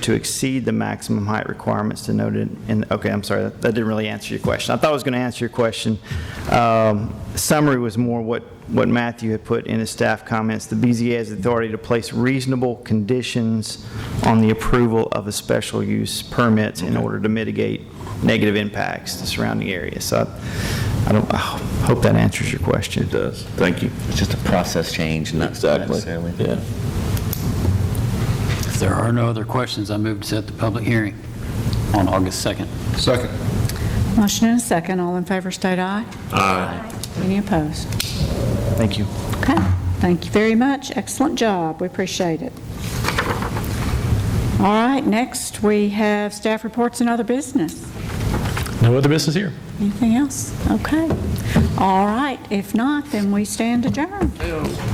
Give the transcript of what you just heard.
to exceed the maximum height requirements denoted in, okay, I'm sorry, that that didn't really answer your question. I thought I was going to answer your question. Um, Summary was more what, what Matthew had put in his staff comments. The BZA has authority to place reasonable conditions on the approval of a special use permit in order to mitigate negative impacts to surrounding areas. So I- I don't, I hope that answers your question. It does. Thank you. It's just a process change, not Exactly. necessarily. Yeah. If there are no other questions, I move to set the public hearing on August 2nd. Second. Motion and a second. All in favor state aye. Aye. Any opposed? Thank you. Okay. Thank you very much. Excellent job. We appreciate it. All right, next we have staff reports and other business. No other business here. Anything else? Okay. All right, if not, then we stand adjourned.